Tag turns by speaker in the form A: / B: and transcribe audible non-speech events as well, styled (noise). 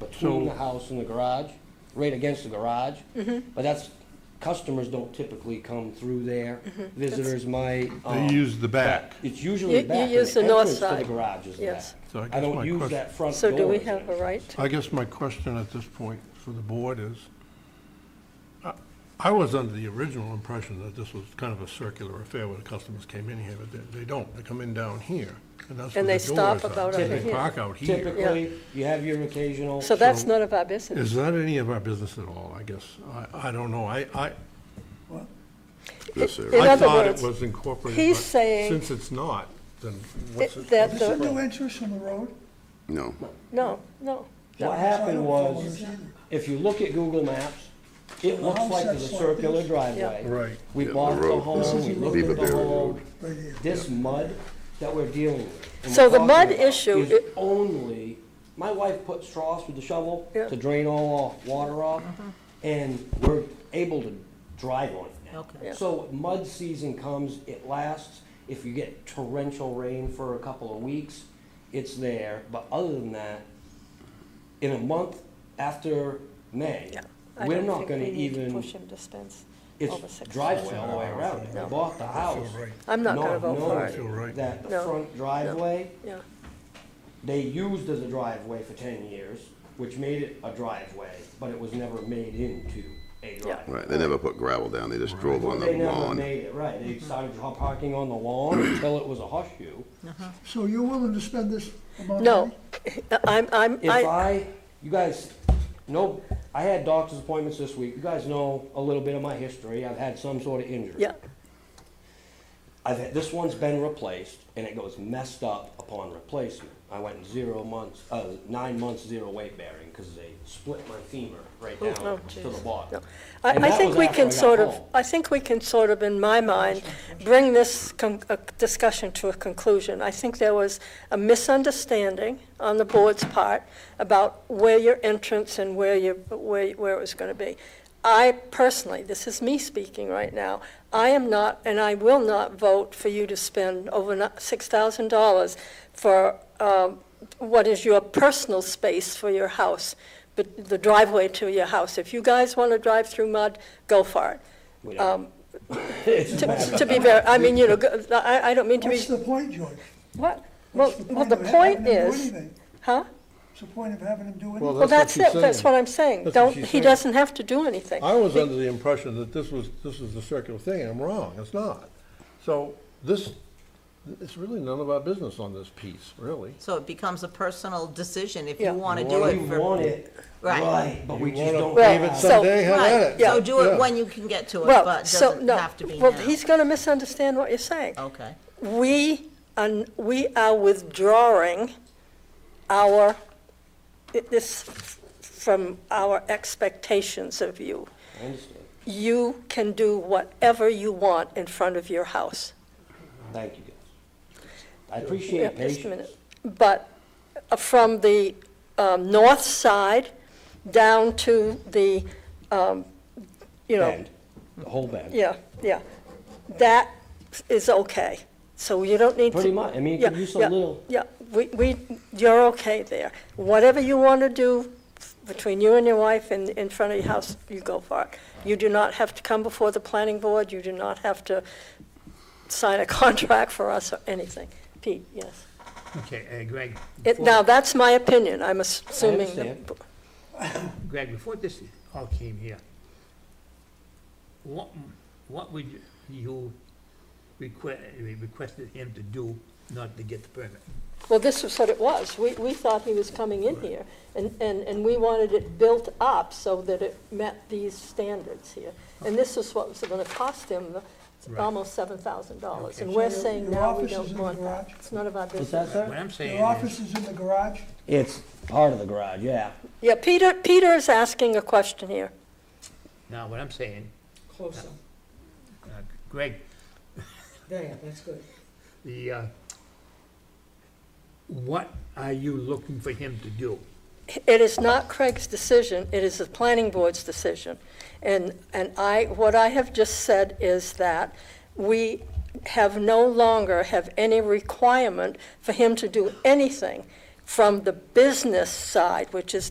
A: between
B: So-
A: the house and the garage, right against the garage.
C: Mm-hmm.
A: But that's, customers don't typically come through there. Visitors might.
B: They
A: um,
B: use the back.
A: It's usually the
C: Mm-hmm. You- you
A: back, but
C: use
A: the
C: the north
A: entrance to the
C: side.
A: garage is the back.
C: Yes.
B: So I guess
A: I
B: my
A: don't use
B: question-
A: that front door.
C: So do we
A: is
C: have a
A: there.
C: right?
B: I guess my question at this point for the board is, I- I was under the original impression that this was kind of a circular affair where the customers came in here, but they, they don't. They come in down here, and that's where
C: And
B: the
C: they stop
B: doors are.
C: about
B: And
C: over
B: They
C: here.
B: park out here.
A: Typically, you have your occasional.
C: So that's none of our business.
B: Is that any of our business at all, I guess? I, I don't know. I, I,
D: This
C: In
D: area.
B: I
C: other
B: thought it
C: words,
B: was incorporated.
C: he's
B: but
C: saying
B: Since it's not, then what's
C: It-
B: it?
C: that
B: what's
E: Is there
B: it
C: the-
E: no
B: for?
E: interest on the road?
D: No.
C: No, no.
A: What
E: I
A: happened
E: don't follow
A: was,
E: this either.
A: if you look at Google Maps, it
E: The
A: looks
E: house
A: like there's a
E: that's like
A: circular
E: this.
A: driveway.
B: Right.
A: We
D: Yeah, the
A: bought the
D: road. This
A: home,
E: is
A: we
E: the
A: looked
D: Beaver
A: at the
D: Dam
A: home.
E: Right here.
A: This mud that we're dealing with. and
C: So
A: we're
C: the
A: talking
C: mud
A: about
C: issue
A: Is
C: i-
A: only, my wife put straws with the shovel
C: Yeah. Mm-hmm.
A: to drain all off, water off, and we're able to drive on it now.
C: Yeah.
A: So mud season comes, it lasts. If you get torrential rain for a couple of weeks, it's there. But other than that, in a month after May,
C: Yeah. I
A: we're
C: don't
A: not
C: think
A: gonna
C: we need to
A: even,
C: Push him to fence over
A: it's
C: six.
A: driveway all the way around. We
C: No.
A: bought the house.
B: right.
C: I'm not gonna vote for
A: knowing
C: it.
B: Feel right.
A: That the
C: No.
A: front driveway,
C: Yeah,
A: they used as a driveway for ten years, which made it a driveway, but it was never made into a driveway.
D: Right, they never put gravel down, they just drove on the
A: They never
D: lawn.
A: made it, right,
C: Mm-hmm.
A: they started dro- parking on the lawn until it was a hush horseshoe.
E: So you're willing to spend this amount of
C: no,
E: money?
C: I'm, I'm,
A: If
C: I,
A: I, you guys, no, I had doctor's appointments this week, you guys know a little bit of my history, I've had some sort of injury.
C: yeah,
A: I've had, this one's been replaced, and it goes messed up upon replacement. I went zero months, uh, nine months zero weight bearing because they split my femur right down
C: oh,
A: to the
C: jeez.
A: bottom.
C: no. I,
A: And
C: I
A: that
C: think
A: was
C: we
A: after I
C: can
A: got
C: sort of,
A: home. (laughs)
C: I think we can sort of, in my mind, bring this con- uh, discussion to a conclusion. I think there was a misunderstanding on the board's part about where your entrance and where your, where, where it was gonna be. I personally, this is me speaking right now, I am not, and I will not vote for you to spend over six thousand dollars for, um, what is your personal space for your house, but the driveway to your house. If you guys wanna drive through mud, go for it.
A: We don't- It's
C: (laughs)
A: bad.
C: To to be very, I mean, you know, go- I, I don't mean to be,
E: What's the point, George?
C: what? Well,
E: What's
C: well, the
E: of having
C: point
E: them do
C: is,
E: anything?
C: huh?
E: What's the point of having them do
B: Well,
E: anything?
C: Well, that's
B: she's
C: it, that's
B: saying.
C: what I'm saying.
B: That's what
C: Don't,
B: she's
C: he
B: saying.
C: doesn't have to do anything.
B: I was under the impression that this was, this was the circular thing, and I'm wrong, it's not. So this, it's really none of our business on this piece, really.
F: So it becomes a personal decision if
C: Yeah.
F: you want to
B: You
F: do
B: wanna-
A: We
F: it for.
A: want it
F: Right.
A: right, but we
B: You
A: just
B: wanna
A: don't
C: Well,
B: pave it
A: have-
C: so-
B: someday, have at
F: Right,
B: it.
C: yeah.
F: so do
B: Yeah.
F: it when you can get to it, but
C: Well,
F: it
C: so,
F: doesn't
C: no.
F: have to be
C: Well,
F: now. Oh.
C: he's gonna misunderstand what you're saying.
F: Okay,
C: We, are- we are withdrawing our, this from our expectations of you.
A: I understand.
C: You can do whatever you want in front of your house.
A: Thank you guys. I
C: Yeah,
A: appreciate
C: just a
A: patience.
C: minute. But uh, from the um, north side down to the, um, you know,
A: Bend, the whole bend.
C: yeah, yeah, that is okay. So you don't need to.
A: Pretty much, I mean,
C: Yeah,
A: it could use a
C: yeah,
A: little.
C: Yeah, we, we, you're okay there. Whatever you want to do between you and your wife in, in front of your house, you go for it. You do not have to come before the planning board, you do not have to sign a (laughs) contract for us or anything. Pete, yes.
G: Okay, uh, Greg,
C: It, now, that's my opinion, I'm assuming. the-
A: understand.
G: Greg, before this all came here, what, what would you request, requested him to do not to get the permit?
C: Well, this was what it was, we, we thought he was coming in here, and, and, and we wanted it built up so that it met these standards here. And this is what was gonna cost him,
G: Right.
C: almost seven thousand dollars,
G: Okay.
C: and we're
E: So your-
C: saying
E: your
C: now we
E: office is
C: don't
E: in the
C: want that,
E: garage?
C: it's none of our
A: Is that
C: business.
A: so?
G: What I'm saying
E: Your
G: is,
E: office is in the garage?
A: It's part of the garage, yeah.
C: Yeah, Peter, Peter is asking a question here.
G: now, what I'm saying,
H: Closer.
G: uh, Greg,
H: There, that's good.
G: the, uh, what are you looking for him to do?
C: It is not Craig's decision, it is the planning board's decision. And, and I, what I have just said is that we have no longer have any requirement for him to do anything from the business side, which is